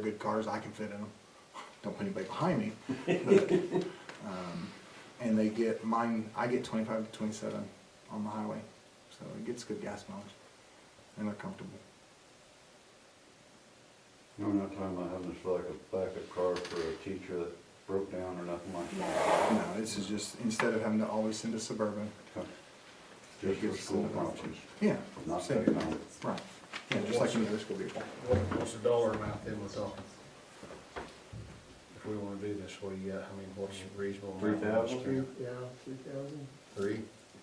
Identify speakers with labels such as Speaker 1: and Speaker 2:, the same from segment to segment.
Speaker 1: good cars, I can fit in them, don't put anybody behind me. But, um, And they get mine, I get twenty-five to twenty-seven on the highway, so it gets good gas mileage, and they're comfortable.
Speaker 2: No, I'm not talking about having this like a backup car for a teacher that broke down or nothing like that.
Speaker 1: No, this is just, instead of having to always send a Suburban, Gives
Speaker 2: Just for
Speaker 1: us
Speaker 2: school
Speaker 1: another option.
Speaker 2: functions,
Speaker 1: yeah,
Speaker 2: not
Speaker 1: same.
Speaker 2: economic.
Speaker 1: right, yeah, just like any other school vehicle.
Speaker 3: What, what's the dollar amount that we're talking? If we wanna do this, what do you got, I mean, what's reasonable? amount?
Speaker 2: Three thousand?
Speaker 4: Yeah, three thousand.
Speaker 3: Three?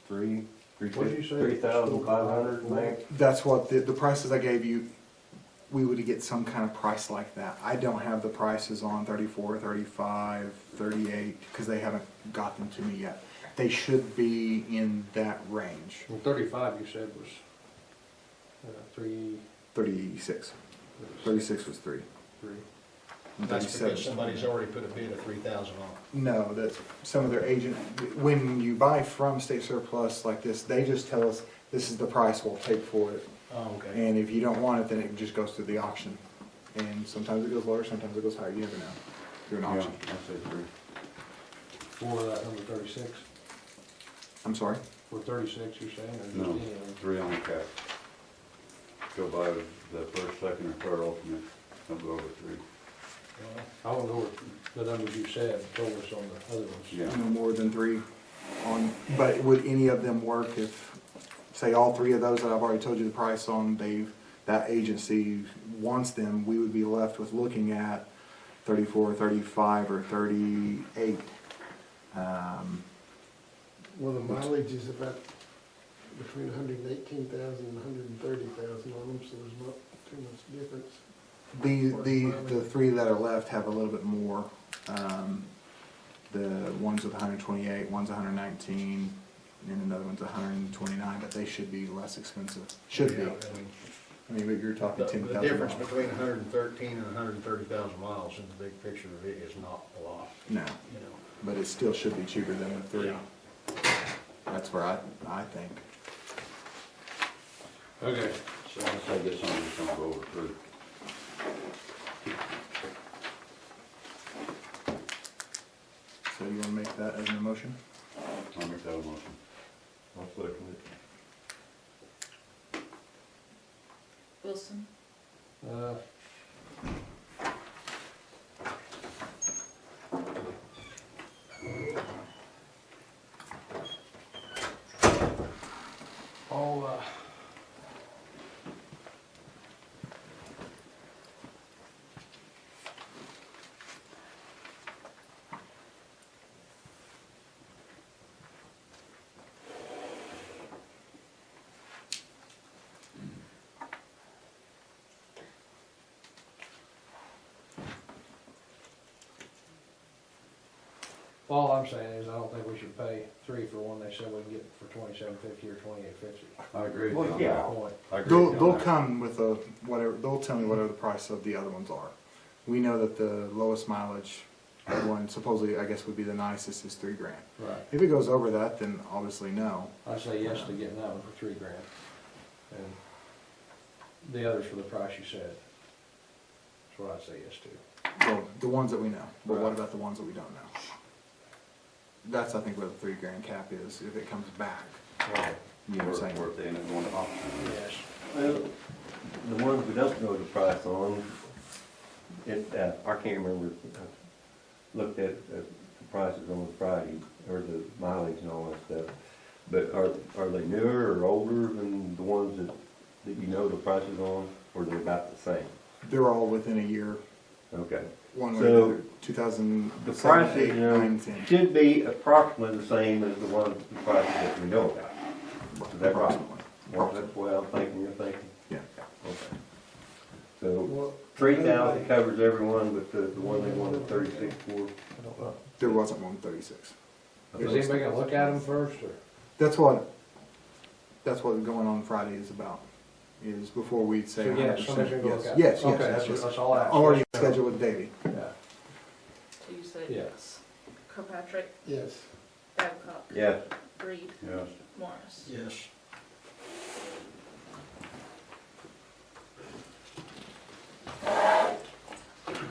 Speaker 2: Three?
Speaker 3: What'd you say?
Speaker 2: Three thousand five hundred, make?
Speaker 1: That's what, the, the prices I gave you, we would get some kind of price like that. I don't have the prices on 34, 35, 38, because they haven't got them to me yet. They should be in that range,
Speaker 3: Well, thirty-five you said was, uh, three.
Speaker 1: 36. 36 was three.
Speaker 3: Three.
Speaker 1: and 37
Speaker 3: That's because
Speaker 1: was
Speaker 3: somebody's
Speaker 1: twenty.
Speaker 3: already put a bid of three thousand on it.
Speaker 1: No, that's some of their agent, when you buy from state surplus like this, they just tell us, this is the price we'll take for it.
Speaker 3: Oh, okay.
Speaker 1: And if you don't want it, then it just goes through the auction. And sometimes it goes lower, sometimes it goes higher, you never know, through an
Speaker 2: Yeah, I
Speaker 1: auction.
Speaker 2: say three.
Speaker 3: For that number thirty-six,
Speaker 1: I'm sorry?
Speaker 3: for thirty-six you're saying, or just
Speaker 2: No,
Speaker 3: any of them?
Speaker 2: three on the cap. Go by the first, second, or third alternate, don't go over three.
Speaker 3: I won't go with the numbers you said, told us on the other ones.
Speaker 2: Yeah,
Speaker 1: No more than three on, but would any of them work if, say, all three of those that I've already told you the price on, they've, that agency wants them, we would be left with looking at thirty-four, thirty-five, or thirty-eight. Um,
Speaker 4: Well, the mileage is about between hundred and eighteen thousand and hundred and thirty thousand on them, so there's not too much difference.
Speaker 1: The, the, the three that are left have a little bit more. Um, the one's with 128, one's 119, and another one's 129, but they should be less expensive. Should be.
Speaker 3: Yeah, I mean,
Speaker 1: I mean, but you're
Speaker 3: The,
Speaker 1: talking
Speaker 3: the
Speaker 1: 10,000.
Speaker 3: difference
Speaker 1: miles.
Speaker 3: between hundred and thirteen and hundred and thirty thousand miles in the big picture of it is not a lot,
Speaker 1: No,
Speaker 3: you know?
Speaker 1: but it still should be cheaper than the three.
Speaker 3: Yeah.
Speaker 1: That's where I, I think.
Speaker 3: Okay.
Speaker 2: so I say this one, just don't go over three.
Speaker 1: So you want to make that as an emotion?
Speaker 2: I'll make that a motion. I'll second it.
Speaker 5: Wilson,
Speaker 3: Uh, I'll, uh, all I'm saying is I don't think we should pay three for one they said we can get for twenty-seven fifty or twenty-eight fifty.
Speaker 2: I agree.
Speaker 1: Well,
Speaker 2: John.
Speaker 1: yeah.
Speaker 3: Point.
Speaker 2: I agree
Speaker 1: They'll,
Speaker 2: with you on
Speaker 1: they'll
Speaker 2: that.
Speaker 1: come with a, whatever, they'll tell me whatever the price of the other ones are. We know that the lowest mileage one supposedly, I guess, would be the nicest is three grand.
Speaker 3: Right.
Speaker 1: If it goes over that, then obviously no.
Speaker 3: I say yes to getting that one for three grand. And the others for the price you said. That's what I'd say yes to.
Speaker 1: Well, the ones that we know, but what
Speaker 3: Right.
Speaker 1: about the ones that we don't know? That's, I think, where the three grand cap is, if it comes back. You know what I'm
Speaker 2: Or,
Speaker 1: saying?
Speaker 2: or if they end up going to auction.
Speaker 3: Yes.
Speaker 6: Well, The ones we don't know the price on, it, uh, I can't remember, I looked at uh, the prices on Friday, or the mileage and all that stuff. But are, are they newer or older than the ones that, that you know the prices on, or they're about the same?
Speaker 1: They're all within a year,
Speaker 6: Okay.
Speaker 1: one way or
Speaker 6: So,
Speaker 1: another, two thousand
Speaker 6: The
Speaker 1: seven,
Speaker 6: prices,
Speaker 1: eight,
Speaker 6: you know,
Speaker 1: nine, ten.
Speaker 6: should be approximately the same as the ones, the prices that we know about. Is that right?
Speaker 1: Approximately.
Speaker 6: Well, That's the way I'm thinking, you're thinking,
Speaker 1: Yeah,
Speaker 6: okay. So.
Speaker 4: Well,
Speaker 6: Three thousand covers everyone, but the, the one they wanted thirty-six for.
Speaker 1: there wasn't one thirty-six.
Speaker 3: Is anybody gonna look at them first or?
Speaker 1: That's what, that's what going on Friday is about, is before we say
Speaker 3: So, yeah,
Speaker 1: 100%.
Speaker 3: somebody's gonna go
Speaker 1: Yes, Yes,
Speaker 3: look at it. Okay,
Speaker 1: yes,
Speaker 3: that's-
Speaker 1: yes, yes.
Speaker 3: that's all I asked.
Speaker 1: Already scheduled with Davey.
Speaker 3: Yeah.
Speaker 5: so you said
Speaker 3: Yes.
Speaker 5: Kirkpatrick,
Speaker 4: yes,
Speaker 5: Babcock,
Speaker 6: Yes.
Speaker 5: Reed,
Speaker 2: Yes.
Speaker 5: Morris.
Speaker 3: Yes.